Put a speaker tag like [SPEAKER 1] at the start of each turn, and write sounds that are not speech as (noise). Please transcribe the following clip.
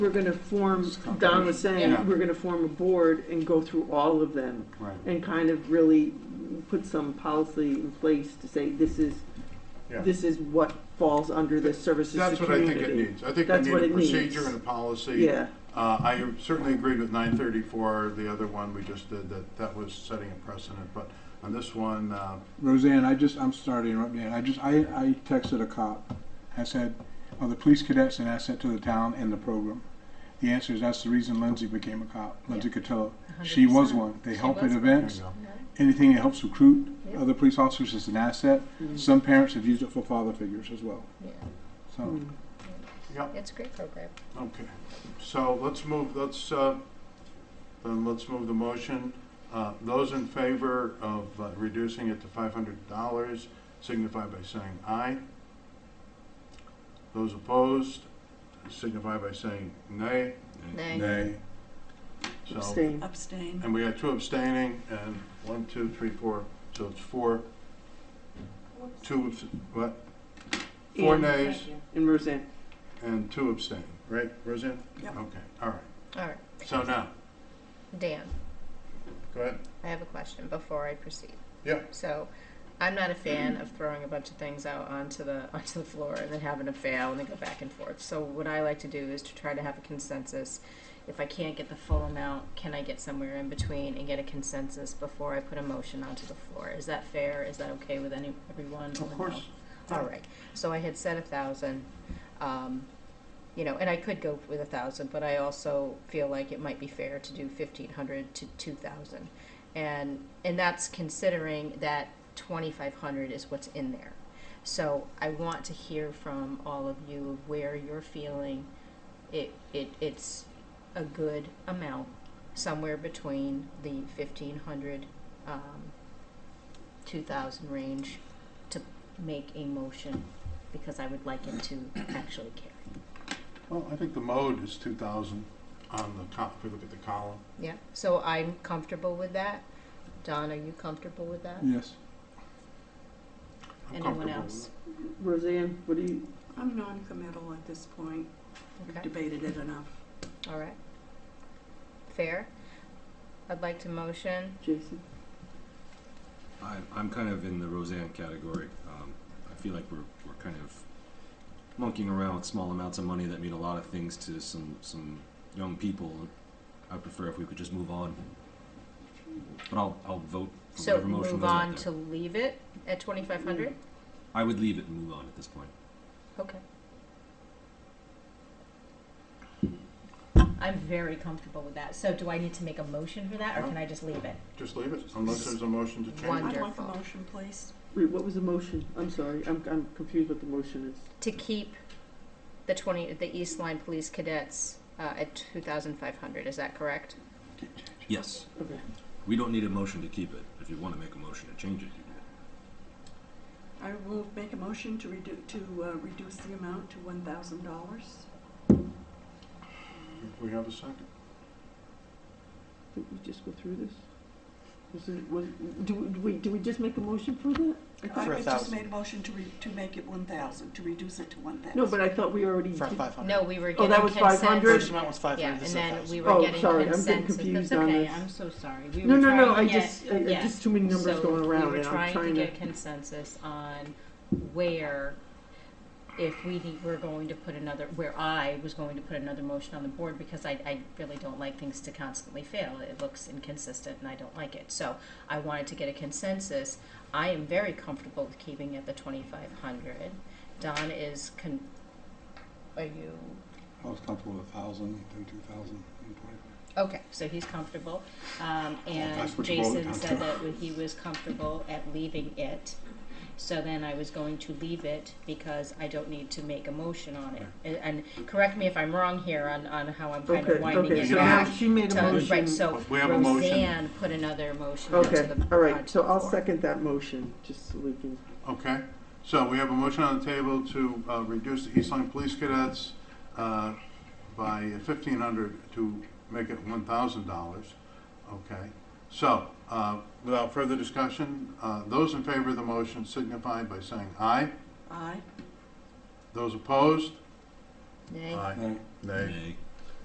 [SPEAKER 1] We're gonna form,
[SPEAKER 2] It's competition.
[SPEAKER 1] Don was
[SPEAKER 2] Yeah.
[SPEAKER 1] saying, we're gonna form a board and go through all of them
[SPEAKER 2] Right.
[SPEAKER 1] and kind of really put some policy in place to say, this is,
[SPEAKER 3] Yeah.
[SPEAKER 1] this is what falls under the services to
[SPEAKER 3] That's what I think it
[SPEAKER 1] community.
[SPEAKER 3] needs. I think we
[SPEAKER 1] That's what
[SPEAKER 3] need a
[SPEAKER 1] it needs.
[SPEAKER 3] procedure and a policy.
[SPEAKER 1] Yeah,
[SPEAKER 3] Uh, I certainly agreed with nine thirty-four, the other one we just did, that that was setting a precedent, but on this one, uh,
[SPEAKER 2] Roseanne, I just, I'm sorry to interrupt, Dan, I just, I, I texted a cop, I said, are the police cadets an asset to the town and the program? The answer is, that's the reason Lindsay became a cop, Lindsay Cotillo. She was
[SPEAKER 4] 100%.
[SPEAKER 2] one, they
[SPEAKER 4] She
[SPEAKER 2] help at
[SPEAKER 4] was one.
[SPEAKER 3] there you
[SPEAKER 2] events,
[SPEAKER 3] go.
[SPEAKER 2] anything that helps recruit
[SPEAKER 4] Yep.
[SPEAKER 2] other police officers is an asset. Some parents have used it for father figures as well,
[SPEAKER 4] Yeah,
[SPEAKER 2] so.
[SPEAKER 1] Hmm. Mm-hmm.
[SPEAKER 3] Yep,
[SPEAKER 4] it's a great program.
[SPEAKER 3] okay. So let's move, let's, uh, then let's move the motion. Uh, Those in favor of uh, reducing it to five hundred dollars signify by saying aye. Those opposed signify by saying nay.
[SPEAKER 4] Nay.
[SPEAKER 2] Nay.
[SPEAKER 3] So-
[SPEAKER 1] abstain.
[SPEAKER 5] Abstain.
[SPEAKER 3] And we had two abstaining, and one, two, three, four, so it's four, two, abs- what? Four
[SPEAKER 1] And-
[SPEAKER 3] nays
[SPEAKER 1] And Roseanne,
[SPEAKER 3] and two abstaining, right, Roseanne?
[SPEAKER 5] Yep.
[SPEAKER 3] Okay, all right.
[SPEAKER 4] All right,
[SPEAKER 3] So now,
[SPEAKER 4] Dan,
[SPEAKER 3] go ahead.
[SPEAKER 4] I have a question before I proceed.
[SPEAKER 3] Yeah.
[SPEAKER 4] So, I'm not a fan of throwing a bunch of things out onto the (laughs) onto the floor and then having to fail and then go back and forth. So, what I like to do is to try to have a consensus. If I can't get the full amount, can I get somewhere in between and get a consensus before I put a motion onto the floor? Is that fair? Is that okay with any everyone? or
[SPEAKER 3] Of
[SPEAKER 4] no?
[SPEAKER 3] course.
[SPEAKER 4] All right, so I had said a thousand, um, you know, and I could go with a thousand, but I also feel like it might be fair to do fifteen hundred to two thousand. And, and that's considering that twenty-five hundred is what's in there. So I want to hear from all of you of where you're feeling it, it, it's a good amount, somewhere between the fifteen hundred, um, two thousand range to make a motion because I would like it to actually carry.
[SPEAKER 3] Well, I think the mode is two thousand on the col, if we look at the column.
[SPEAKER 4] Yeah, so I'm comfortable with that. Don, are you comfortable with that?
[SPEAKER 2] Yes.
[SPEAKER 3] I'm
[SPEAKER 4] Anyone
[SPEAKER 3] comfortable
[SPEAKER 4] else?
[SPEAKER 1] Roseanne, what do you,
[SPEAKER 5] I'm non-committal at this point. We've
[SPEAKER 4] Okay,
[SPEAKER 5] Debated it enough.
[SPEAKER 4] all right. Fair. I'd like to motion.
[SPEAKER 1] Jason?
[SPEAKER 6] I, I'm kind of in the Roseanne category. Um, I feel like we're, we're kind of monkeying around with small amounts of money that mean a lot of things to some, some young people. I prefer if we could just move on. But I'll, I'll vote for
[SPEAKER 4] So
[SPEAKER 6] whatever motion
[SPEAKER 4] move
[SPEAKER 6] goes out
[SPEAKER 4] on
[SPEAKER 6] there.
[SPEAKER 4] to leave it at twenty-five hundred?
[SPEAKER 6] I would leave it and move on at this point.
[SPEAKER 4] Okay. I'm very comfortable with that. So do I need to make a motion for that or can I just leave it?
[SPEAKER 3] with it. Just leave it, unless there's a motion to change.
[SPEAKER 4] One.
[SPEAKER 5] I'd like a
[SPEAKER 4] Wonderful.
[SPEAKER 5] motion, please.
[SPEAKER 1] Wait, what was the motion? I'm sorry, I'm, I'm confused what the motion is.
[SPEAKER 4] To keep the twenty, the East Line Police Cadets, uh, at two thousand five hundred, is that correct?
[SPEAKER 6] Yes.
[SPEAKER 1] Okay.
[SPEAKER 6] We don't need a motion to keep it. If you want to make a motion to change it, you do.
[SPEAKER 5] I will make a motion to redu, to uh, reduce the amount to one thousand dollars.
[SPEAKER 3] If we have a second.
[SPEAKER 1] Did we just go through this? Was it, was, do, we- do we, do we just make a motion for that? I
[SPEAKER 5] I
[SPEAKER 1] thought-
[SPEAKER 7] For a
[SPEAKER 5] I just
[SPEAKER 7] thousand.
[SPEAKER 5] made a motion to re, to make it one thousand, to reduce it to one thousand.
[SPEAKER 1] No, but I thought we already
[SPEAKER 7] For
[SPEAKER 1] did-
[SPEAKER 7] five hundred.
[SPEAKER 4] No, we were
[SPEAKER 1] Oh, that
[SPEAKER 4] getting consent.
[SPEAKER 1] was 500?
[SPEAKER 7] First amount was five
[SPEAKER 4] Yeah,
[SPEAKER 7] hundred,
[SPEAKER 4] and
[SPEAKER 7] this is
[SPEAKER 4] then we
[SPEAKER 7] 1,000.
[SPEAKER 4] were
[SPEAKER 1] Oh,
[SPEAKER 4] getting
[SPEAKER 1] sorry, I'm getting
[SPEAKER 4] consensus.
[SPEAKER 1] confused
[SPEAKER 4] That's
[SPEAKER 1] on
[SPEAKER 4] okay,
[SPEAKER 1] this.
[SPEAKER 4] I'm so sorry. We
[SPEAKER 1] No,
[SPEAKER 4] were
[SPEAKER 1] no, no, I
[SPEAKER 4] trying to get-
[SPEAKER 1] just, I- I-
[SPEAKER 4] yeah.
[SPEAKER 1] just too many numbers
[SPEAKER 4] So
[SPEAKER 1] going around and I'm
[SPEAKER 4] We were trying
[SPEAKER 1] trying
[SPEAKER 4] to
[SPEAKER 1] to.
[SPEAKER 4] get consensus on where, if we need- were going to put another, where I was going to put another motion on the board because I, I really don't like things to constantly fail. It looks inconsistent and I don't like it. So I wanted to get a consensus. I am very comfortable with keeping at the twenty-five hundred. Don is con, are you
[SPEAKER 2] I was comfortable with a thousand, then two thousand, and twenty-five.
[SPEAKER 4] Okay, so he's comfortable, um, and
[SPEAKER 2] that's what you voted
[SPEAKER 4] Jason
[SPEAKER 2] on,
[SPEAKER 4] said
[SPEAKER 2] too.
[SPEAKER 4] that he was comfortable at leaving it. So then I was going to leave it because I don't need to make a motion on it. And, and correct me if I'm wrong here on, on how I'm kind
[SPEAKER 1] Okay,
[SPEAKER 4] of winding
[SPEAKER 1] okay,
[SPEAKER 4] it
[SPEAKER 3] You
[SPEAKER 1] so
[SPEAKER 3] know,
[SPEAKER 1] now
[SPEAKER 4] back.
[SPEAKER 1] she made a
[SPEAKER 4] to-
[SPEAKER 1] motion.
[SPEAKER 4] Right, so
[SPEAKER 3] We have a motion.
[SPEAKER 4] Roseanne put another motion onto the.
[SPEAKER 1] Okay, all right,
[SPEAKER 4] onto
[SPEAKER 1] so
[SPEAKER 4] the
[SPEAKER 1] I'll
[SPEAKER 4] floor.
[SPEAKER 1] second that motion, just so we can,
[SPEAKER 3] Okay, so we have a motion on the table to uh, reduce the East Line Police Cadets uh, by fifteen hundred to make it one thousand dollars. Okay, so uh, without further discussion, uh, those in favor of the motion signify by saying aye.
[SPEAKER 5] Aye.
[SPEAKER 3] Those opposed?
[SPEAKER 4] Nay.
[SPEAKER 2] Nay.
[SPEAKER 3] Nay.
[SPEAKER 6] Nay.